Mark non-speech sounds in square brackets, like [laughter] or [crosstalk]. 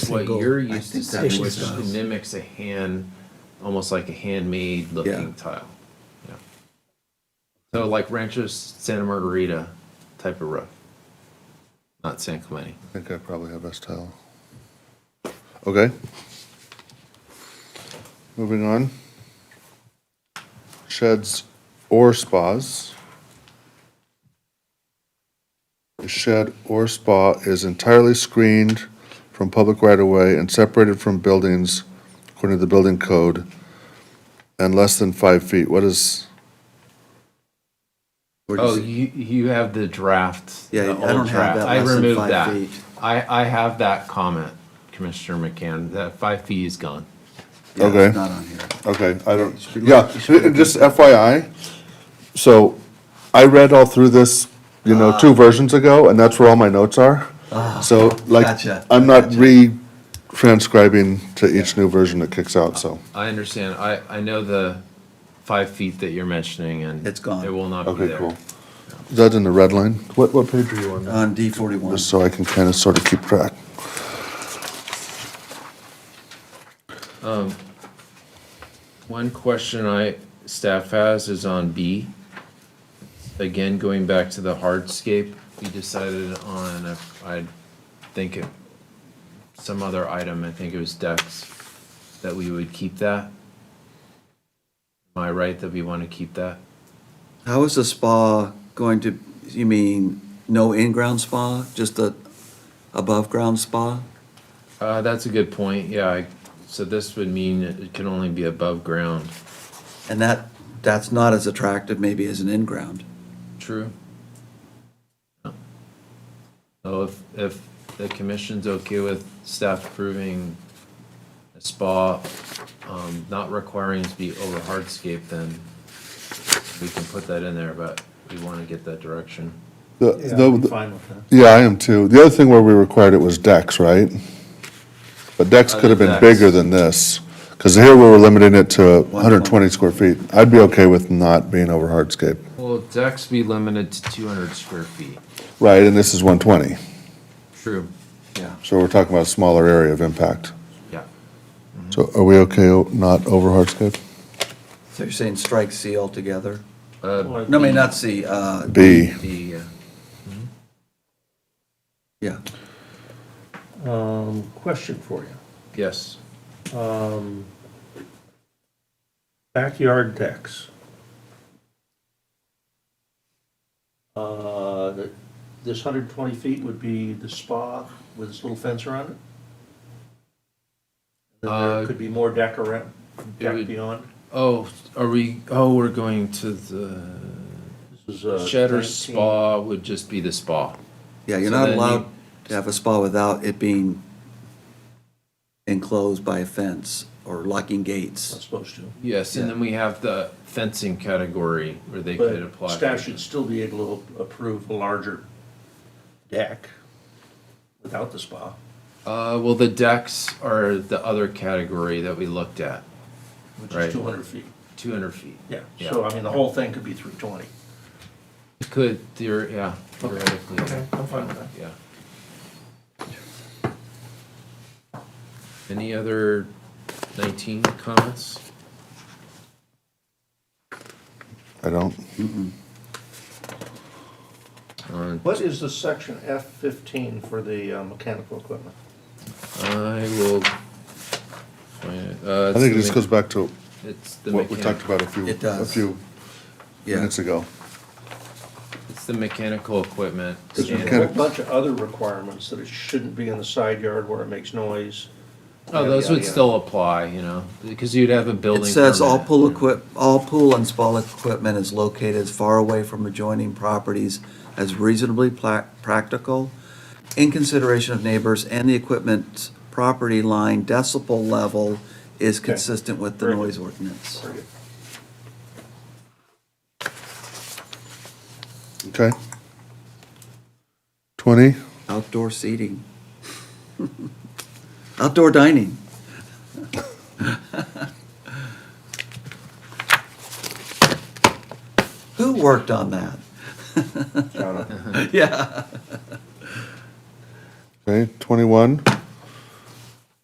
what single- you're I used to think that seeing, makes which sense. mimics a hand, almost like a handmade looking Yeah. tile. Yeah. So like Rancho's Santa Margarita type of roof, not San Clemente. I think I probably have S tile. Okay. Moving on. Sheds or spas. A shed or spa is entirely screened from public right-of-way and separated from buildings according to the building code and less than five feet. What is, Where do you Oh, see- you you have the draft. Yeah, the I old don't have draft. that I less than removed five that. feet. I I have that comment, Commissioner McCann. That five feet is gone. yeah, it's okay. Not on here. Okay, I don't, Should we- yeah, should we- just FYI, so I read all through this, you know, two Ah. versions ago, and that's where all my notes are. So like, gotcha, I'm not gotcha. re-transcribing to each new version that kicks out, so, I understand. I I know the five feet that you're mentioning, and It's gone. It will not be okay, there. cool. That's in the red line? What, what page are you on? On D forty-one. Just so I can kind of sort of keep track. One question I, staff has is on B. Again, going back to the hardscape, we decided on, a- I think, it- some other item, I think it was decks, that we would keep that. Am I right that we want to keep that? How is the spa going to, you mean, no in-ground spa, just a above-ground spa? Uh, that's a good point, yeah, I- so this would mean it can only be above ground. And that, that's not as attractive maybe as an in-ground. True. So if, if the commission's okay with staff approving a spa, um, not requiring it to be over hardscape, then we can put that in there, but we wanna get that direction. The- Yeah, the- I'm fine with that. Yeah, I am too. The other thing where we required it was decks, right? But decks could have been Decks. bigger than this, because here we were limiting it to 120 square feet. I'd be okay with not being over hardscape. Well, decks be limited to two hundred square feet. Right, and this is 120, True. Yeah. so we're talking about a smaller area of impact. Yeah. So are we okay o- not over hardscape? So you're saying strike C altogether? Uh, No, I mean, not C, uh, B, the, uh, yeah. Um, question for you. yes, Um, backyard decks. Uh, th- this hundred twenty feet would be the spa with this little fence around it? Then Uh, There could be more deck around, would- deck beyond. oh, are we, oh, we're going to the This is, uh, shed or 19. spa would just be the spa. Yeah, So you're not then allowed you- to have a spa without it being enclosed by a fence or locking Not gates. supposed to. Yes, and then we have the fencing category where they could But apply. for staff it. should still be able to approve a larger deck without the spa. Uh, well, the decks are the other category that we looked at, which Right. is 200 feet. two hundred feet. Yeah, Yeah. so I mean, the whole thing could be 320. It Could, theor- yeah, theoretically, yeah. I'm fine with that. yeah. Any other nineteen comments? I don't. On What is the section F15 for the uh, mechanical equipment? I will. find it. Uh, I it's think this the goes mech- back to It's the what we talked mechanical, about a few, It a does. few Yeah, minutes ago. it's the mechanical equipment. There's a standard. whole bunch of other requirements that it shouldn't be in the side yard where it makes noise. Oh, yada, those yada, would yada. still apply, you know, because you'd have a building. it says all permit. pool equip, all pool and spa equipment is located as far away from adjoining properties as reasonably pla- practical in consideration of neighbors and the equipment's property line decibel level is consistent with the Very good. noise ordinance. Very good. Okay. 20, Outdoor seating. [laughs] Outdoor dining. [laughs] Who worked on that? [laughs] John, Yeah. okay, 21.